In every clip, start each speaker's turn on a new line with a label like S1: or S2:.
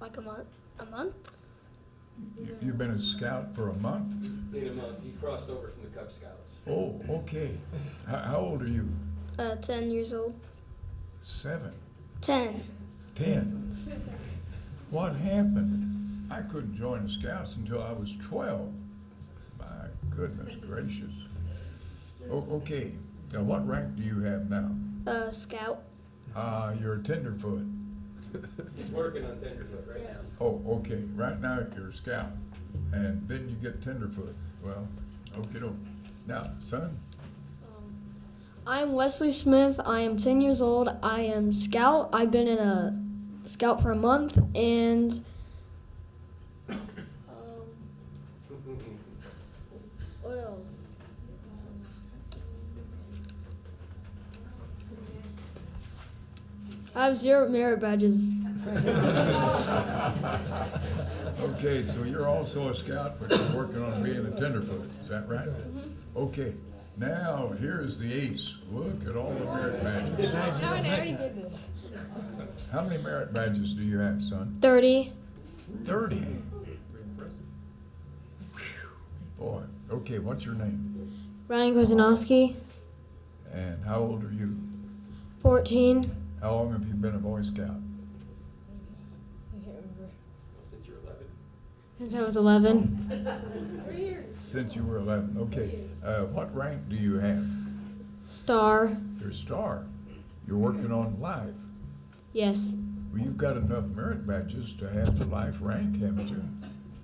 S1: Like a month? A month?
S2: You- You've been a scout for a month?
S3: In a month, he crossed over from the Cub Scouts.
S2: Oh, okay. How, how old are you?
S1: Uh, 10 years old.
S2: Seven,
S1: 10.
S2: ten? What happened? I couldn't join the scouts until I was twelve. My goodness gracious. O- okay, now what rank do you have now?
S1: Uh, scout.
S2: Uh, you're a tenderfoot.
S3: He's working on tenderfoot right now.
S1: Yes.
S2: Oh, okay, right now you're a scout, and then you get tenderfoot. Well, okay, doke. Now, son,
S4: Um, I'm Wesley Smith. I am 10 years old. I am scout. I've been in a scout for a month and um, what else? I have zero merit badges.
S2: Okay, so you're also a scout, but you're working on being a tenderfoot, is that right? Okay, now, here's the ace. Look at all the merit badges. How many merit badges do you have, son?
S4: 30.
S2: Thirty. Boy, okay, what's your name?
S4: Ryan Kozanowski,
S2: And how old are you?
S4: 14.
S2: How long have you been a Boy Scout?
S3: Since you're 11.
S4: Since I was 11.
S2: Since you were eleven, okay. Uh, what rank do you have?
S4: Star.
S2: You're a star. You're working on life.
S4: Yes.
S2: Well, you've got enough merit badges to have the life rank, haven't you?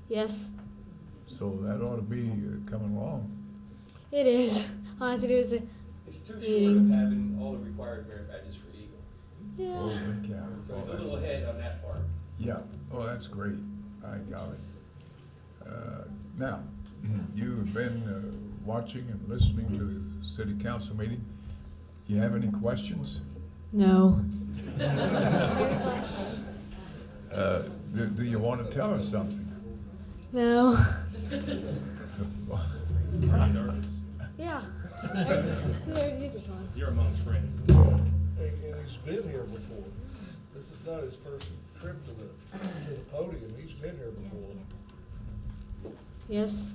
S4: Yes.
S2: So that ought to be uh, coming along.
S4: It is. All I have to do is.
S3: He's too short of
S4: Meeting.
S3: having all the required merit badges for Eagle. Oh,
S4: Yeah.
S2: Holy cow.
S3: So he's a little ahead on that part.
S2: Oh, Yeah, oh, that's great. I got it. Uh, Now,
S3: Mm-hmm.
S2: you've been uh, watching and listening to the city council meeting. You have any questions?
S4: No.
S2: Uh, Do do you want to tell us something?
S4: No. Yeah.
S5: You're amongst friends.
S6: And, and he's been here before. This is not his first trip to the, to the podium. He's been here before.
S4: Yes.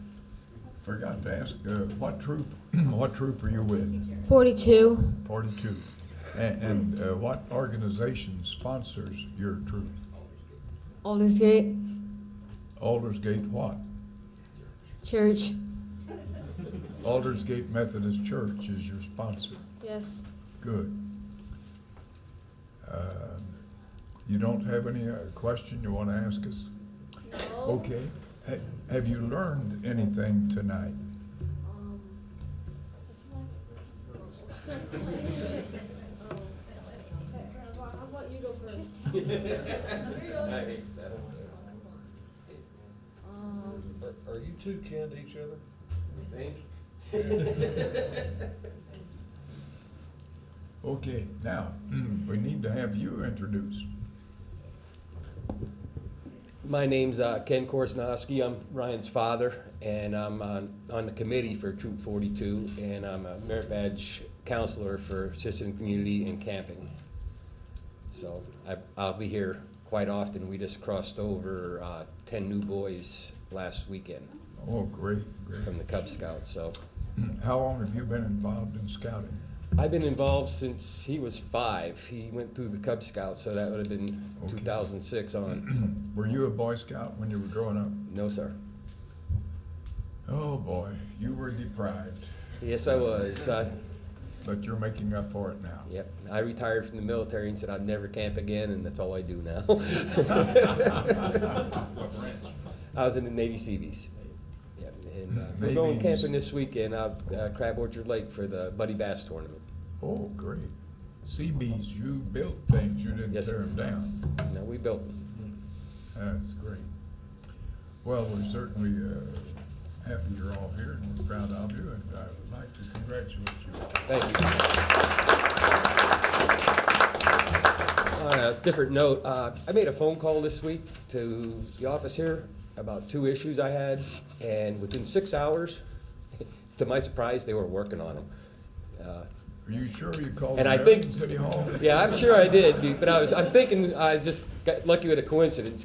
S2: Forgot to ask, uh, what troop, what troop are you with?
S4: 42.
S2: Forty-two. And- And uh, what organization sponsors your troop?
S4: Aldersgate.
S2: Aldersgate what?
S4: Church.
S2: Aldersgate Methodist Church is your sponsor.
S4: Yes.
S2: Good. Um, You don't have any uh, question you want to ask us? Okay. Ha- Have you learned anything tonight?
S3: I hate that.
S4: Um,
S6: Are, are you two kin to each other?
S3: Think?
S2: Okay, now, we need to have you introduced.
S3: My name's uh, Ken Korsnowski. I'm Ryan's father, and I'm on, on the committee for Troop 42, and I'm a merit badge counselor for assisting community and camping. So I, I'll be here quite often. We just crossed over uh, 10 new boys last weekend
S2: Oh, great, great. Mm-hmm.
S3: from the Cub Scouts. So
S2: How long have you been involved in scouting?
S3: I've been involved since he was five. He went through the Cub Scouts, so that would have been
S2: Okay.
S3: 2006 on.
S2: Were you a Boy Scout when you were growing up?
S3: No, sir.
S2: Oh, boy, you were deprived,
S3: Yes, I was. I,
S2: but you're making up for it now.
S3: Yep, I retired from the military and said I'd never camp again, and that's all I do now. I
S5: What branch?
S3: was in the Navy Seabees. Yep, and uh, we're
S2: Navy
S3: going
S2: Seabees.
S3: camping this weekend out uh, Crab Orchard Lake for the Buddy Bass tournament.
S2: Oh, great. Seabees, you built things, you didn't
S3: Yes,
S2: tear
S3: sir.
S2: them down.
S3: Now we built them.
S2: That's great. Well, we're certainly uh, happy you're all here and we're proud of you and I would like to congratulate you.
S3: Thank you. On a different note, uh, I made a phone call this week to the office here about two issues I had, and within six hours, to my surprise, they were working on them. Uh,
S2: Are you sure you called
S3: And I
S2: American
S3: think-
S2: City Hall?
S3: Yeah, I'm sure I did, but I was, I'm thinking, I just got lucky with a coincidence,